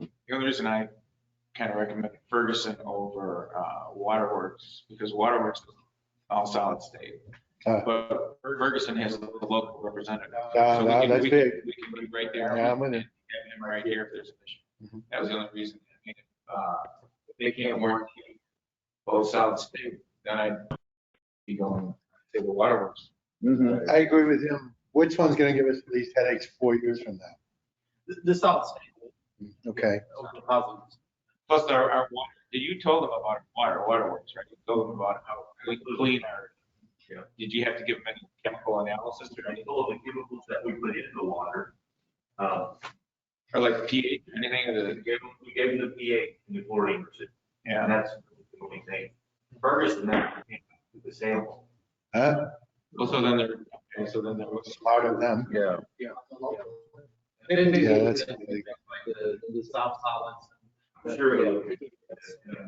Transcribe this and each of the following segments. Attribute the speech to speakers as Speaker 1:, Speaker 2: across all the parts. Speaker 1: The only reason I kind of recommend Ferguson over uh, Waterworks, because Waterworks is all solid state.
Speaker 2: Ah.
Speaker 1: But Ferguson has a local representative.
Speaker 2: No,
Speaker 1: So we
Speaker 2: Uh, no,
Speaker 1: can-
Speaker 2: that's
Speaker 1: we can-
Speaker 2: big.
Speaker 1: We can be right there.
Speaker 2: Yeah, I'm with you.
Speaker 1: have him right here if there's an issue.
Speaker 2: Mhm.
Speaker 1: That was the only reason. I mean, uh, If they can't warranty both solid state, then I'd be going to the waterworks.
Speaker 3: Mm-hmm.
Speaker 2: I agree with him. Which one's gonna give us these headaches four years from now?
Speaker 4: The- The solid state,
Speaker 2: Okay,
Speaker 4: over the positives.
Speaker 1: Plus our, our water, did you told them about water, waterworks, right? You told them about how we clean our, did you have to give them any chemical analysis or anything?
Speaker 5: All the chemicals that we put into the water, um,
Speaker 1: Or like pH, anything
Speaker 5: we
Speaker 1: that,
Speaker 5: gave them, we gave them the pH and the chlorine percentage. And
Speaker 1: yeah,
Speaker 5: that's the only thing. Ferguson, that came with the sample.
Speaker 2: huh?
Speaker 1: also Oh, then there, okay, so then there was.
Speaker 2: Smart of them.
Speaker 3: Yeah,
Speaker 4: And then
Speaker 2: Yeah,
Speaker 4: maybe
Speaker 2: that's-
Speaker 4: like The, the soft solids.
Speaker 5: I'm sure it'll-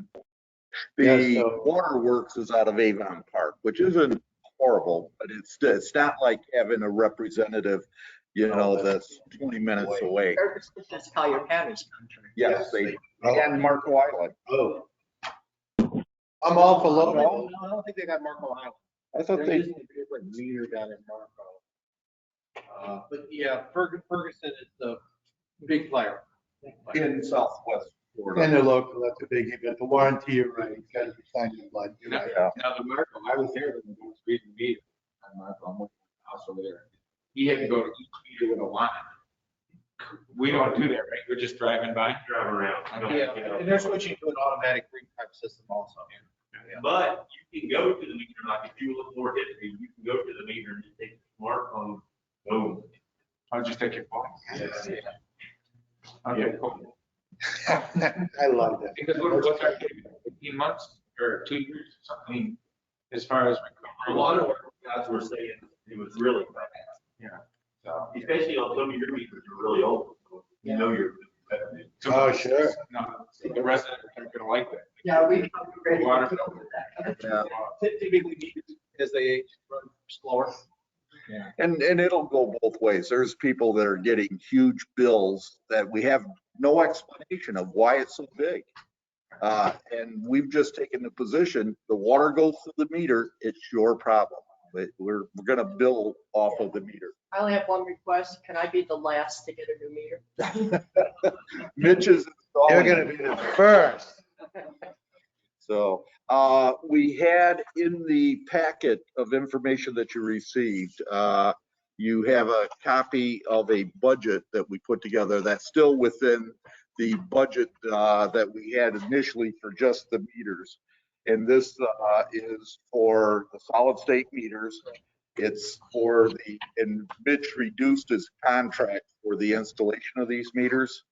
Speaker 2: Yeah,
Speaker 3: the
Speaker 2: so-
Speaker 3: waterworks is out of Avon Park, which isn't horrible, but it's, it's not like having a representative, you know, Oh, that's 20 minutes away.
Speaker 6: That's how your patterns come true.
Speaker 3: Yes, they, and Marco Island.
Speaker 2: Oh. I'm all for
Speaker 4: No,
Speaker 2: local.
Speaker 4: I don't think they got Marco Island.
Speaker 3: I thought
Speaker 4: There
Speaker 3: they,
Speaker 4: is a different meter down in Marco. Uh, But yeah, Ferg- Ferguson is the big player.
Speaker 3: in Southwest
Speaker 2: And
Speaker 3: Florida.
Speaker 2: they're local, that's a biggie, but the warranty, you're right, it's gotta be signed in blood, you're right.
Speaker 3: Yeah.
Speaker 1: Now, the Marco, I was there when I was reading the meter. I'm not, I'm with also there. He had to go to each meter with a line. We don't do that, right? We're just driving by.
Speaker 5: Drive around. I don't-
Speaker 4: Yeah,
Speaker 5: you know.
Speaker 4: and they're switching to an automatic read type system also.
Speaker 5: But you can go to the meter, like if you look more history, you can go to the meter and just take the smartphone, boom.
Speaker 1: I'll just take your phone. Okay, cool.
Speaker 2: I love that.
Speaker 1: Because what, what's our, fifteen months or two years, or something, as far as.
Speaker 5: A lot of our guys were saying it was really fast,
Speaker 1: So,
Speaker 5: especially on some of your meters are really old. so You know you're.
Speaker 2: Oh, sure.
Speaker 1: No, the residents aren't gonna like that.
Speaker 6: Yeah, we.
Speaker 1: Water.
Speaker 3: Yeah.
Speaker 4: Typically, meters, as they age, run slower.
Speaker 3: And, and it'll go both ways. There's people that are getting huge bills that we have no explanation of why it's so big. Uh, and we've just taken the position, the water goes through the meter, it's your problem. But we're, we're gonna bill off of the meter.
Speaker 6: I only have one request. Can I be the last to get a new meter?
Speaker 3: Mitch is
Speaker 2: You're
Speaker 3: installing.
Speaker 2: gonna be the first.
Speaker 3: So, uh, we had in the packet of information that you received, uh, you have a copy of a budget that we put together that's still within the budget, uh, that we had initially for just the meters. And this, uh, is for the solid state meters. It's for the, and Mitch reduced his contract for the installation of these meters.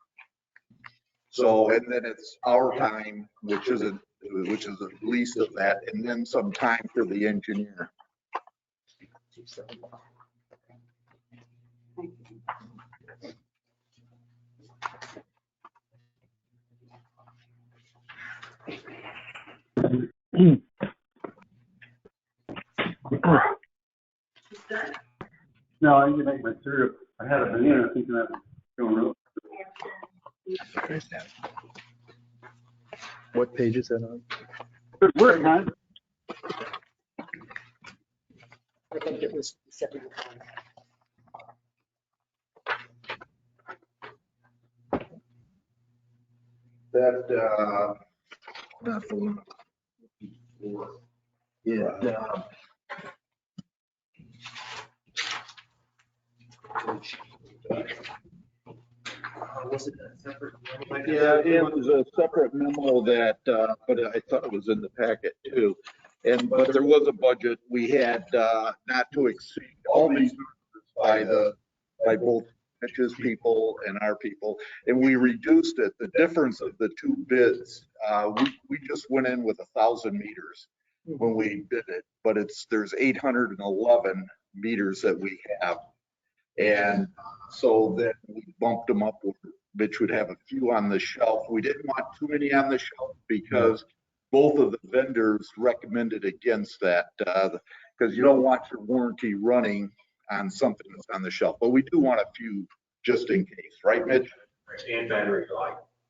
Speaker 3: So, and then it's our time, which is a, which is the least of that, and then some time for the engineer.
Speaker 7: No, I didn't make my syrup. I had a banana thinking that was going up.
Speaker 2: What page is that on?
Speaker 7: Good work, man.
Speaker 6: I think it was seven.
Speaker 3: That, uh. Yeah. uh,
Speaker 6: Was it a separate?
Speaker 3: Yeah, it was a separate memo that, uh, but I thought it was in the packet too. And, but there was a budget we had, uh, not to exceed all these numbers by the, by both Mitch's people and our people. And we reduced it, the difference of the two bids, uh, we, we just went in with a thousand meters when we bid it, but it's, there's eight hundred and eleven meters that we have. And so then we bumped them up with Mitch would have a few on the shelf. We didn't want too many on the shelf because both of the vendors recommended against that, because you don't want your warranty running on something that's on the shelf. But we do want a few just in case, right, Mitch?
Speaker 5: And battery life.